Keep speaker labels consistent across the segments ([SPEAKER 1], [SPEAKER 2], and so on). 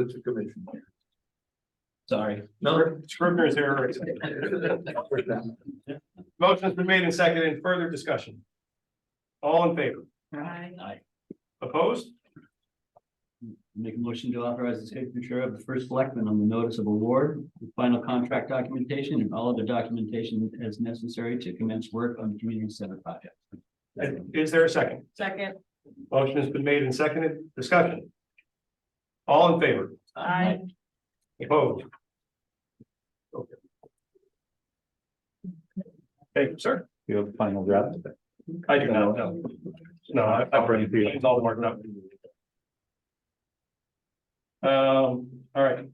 [SPEAKER 1] It's a commission.
[SPEAKER 2] Sorry.
[SPEAKER 1] No.
[SPEAKER 3] Scrivener's error. Motion's been made and seconded. Any Further discussion. All in favor?
[SPEAKER 4] Aye.
[SPEAKER 3] Opposed?
[SPEAKER 2] Make a motion to authorize the signature of the first selectman on the notice of award, the final contract documentation and all other documentation as necessary to commence work on the community center project.
[SPEAKER 3] Is there a second?
[SPEAKER 4] Second.
[SPEAKER 3] Motion has been made and seconded. Discussion. All in favor?
[SPEAKER 4] Aye.
[SPEAKER 3] Opposed? Okay. Thank you, sir.
[SPEAKER 5] You have a final draft?
[SPEAKER 3] I do not know. No, I, I already feel it's all marked up. Um, all right.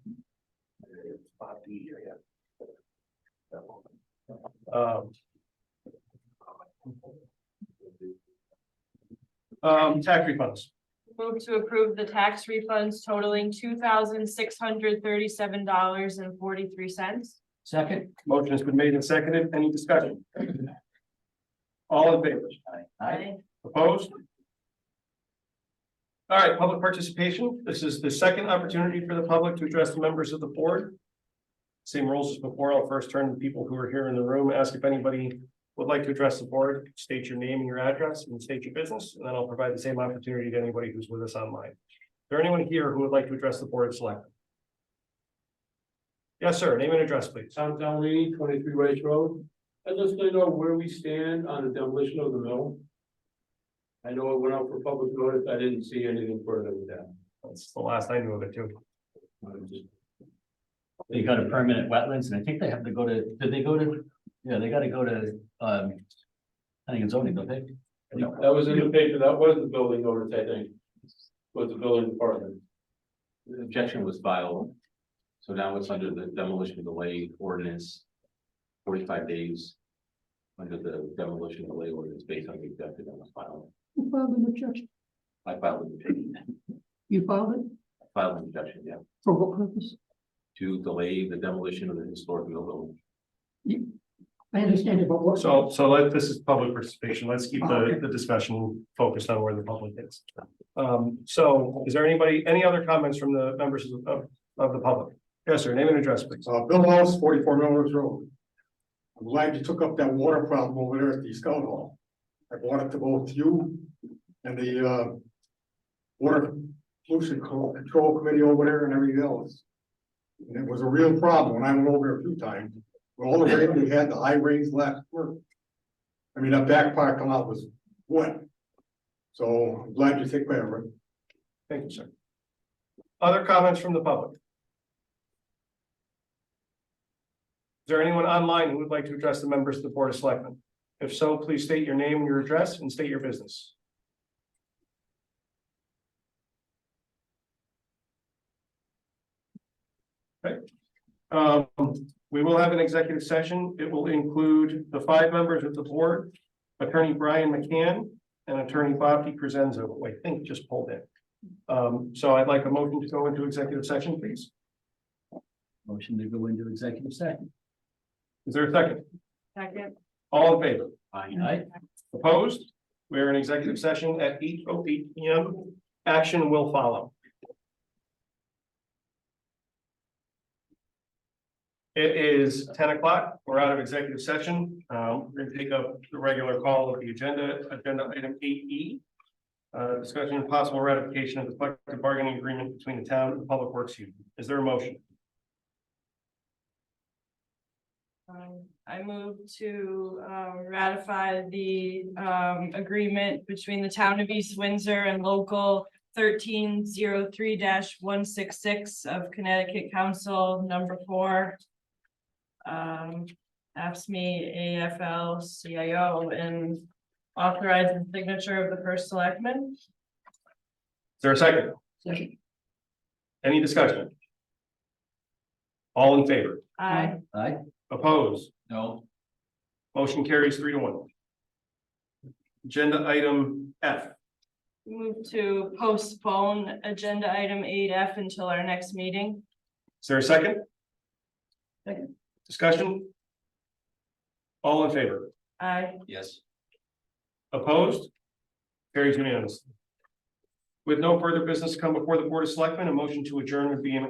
[SPEAKER 3] Um. Um, tax refunds.
[SPEAKER 4] Move to approve the tax refunds totaling two thousand six hundred thirty-seven dollars and forty-three cents.
[SPEAKER 2] Second.
[SPEAKER 3] Motion has been made and seconded. Any discussion? All in favor? Opposed? All right, public participation. This is the second opportunity for the public to address the members of the board. Same rules as before. I'll first turn to people who are here in the room, ask if anybody would like to address the board, state your name and your address and state your business, and then I'll provide the same opportunity to anybody who's with us online. Is there anyone here who would like to address the board of select? Yes, sir. Name and address, please.
[SPEAKER 6] Tom Downey, twenty-three Rice Road. I'd just like to know where we stand on the demolition of the mill. I know it went out for public notice, I didn't see anything further with that.
[SPEAKER 3] That's the last I knew of it too.
[SPEAKER 6] I'm just-
[SPEAKER 2] They got a permanent wetlands and I think they have to go to, did they go to, yeah, they gotta go to, um. I think it's only, don't they?
[SPEAKER 6] That was in the paper, that was the building notice, I think, was the building department.
[SPEAKER 7] The objection was filed. So now it's under the demolition delay ordinance. Forty-five days. Under the demolition delay ordinance based on the objection that was filed.
[SPEAKER 8] You filed an objection,
[SPEAKER 7] I filed an objection,
[SPEAKER 8] you filed it,
[SPEAKER 7] I filed an objection, yeah,
[SPEAKER 8] for what purpose?
[SPEAKER 7] to delay the demolition of the historic mill building.
[SPEAKER 8] I understand it, but what?
[SPEAKER 3] So, so let, this is public participation. Let's keep
[SPEAKER 8] Oh,
[SPEAKER 3] the,
[SPEAKER 8] okay.
[SPEAKER 3] the discussion focused on where the public is. Um, so is there anybody, any other comments from the members of, the- of, of the public? Yes, sir. Name and address, please.
[SPEAKER 9] Uh, Bill House, forty-four Millers Road. I'm glad you took up that water problem over there at the Scout Hall. I brought it to both you and the, uh, Water Pollution Co- Control Committee over there and everything else. And it was a real problem, and I went over there a few times. With all the rain we had, the high rains last work. I mean, that back parking lot was wet. So I'm glad you took care of it.
[SPEAKER 3] Thank you, sir. Other comments from the public? Is there anyone online who would like to address the members of the Board of Selectmen? If so, please state your name, your address, and state your business. Okay. Um, we will have an executive session. It will include the five members of the board, Attorney Brian McCann and Attorney Bob DiCrescenzo, who I think just pulled in. Um, so I'd like a motion to go into executive session, please.
[SPEAKER 2] Motion to go into executive session.
[SPEAKER 3] Is there a second?
[SPEAKER 4] Second.
[SPEAKER 3] All in favor?
[SPEAKER 2] Aye.
[SPEAKER 3] Opposed? We are in executive session at eight oh eight P M. Action will follow. It is ten o'clock. We're out of executive session. Um, we're gonna take up the regular call of the agenda, agenda item eight E. Uh, discussion and possible ratification of the collective bargaining agreement between the town and the public works union. Is there a motion?
[SPEAKER 4] Um, I move to um, ratify the um, agreement between the town of East Windsor and local thirteen zero three one six six of Connecticut Council number four. Um, AFSMI AFL CIO and authorize the signature of the first selectman.
[SPEAKER 3] Is there a second?
[SPEAKER 8] Second.
[SPEAKER 3] Any discussion? All in favor?
[SPEAKER 4] Aye.
[SPEAKER 2] Aye.
[SPEAKER 3] Opposed?
[SPEAKER 2] No.
[SPEAKER 3] Motion carries three to one. Agenda item F.
[SPEAKER 4] Move to postpone agenda item eight F until our next meeting.
[SPEAKER 3] Is there a second?
[SPEAKER 2] Second.
[SPEAKER 3] Discussion? All in favor?
[SPEAKER 4] Aye.
[SPEAKER 7] Yes.
[SPEAKER 3] Opposed? Carries unanimously. With no further business to come before the Board of Selectmen, a motion to adjourn would be in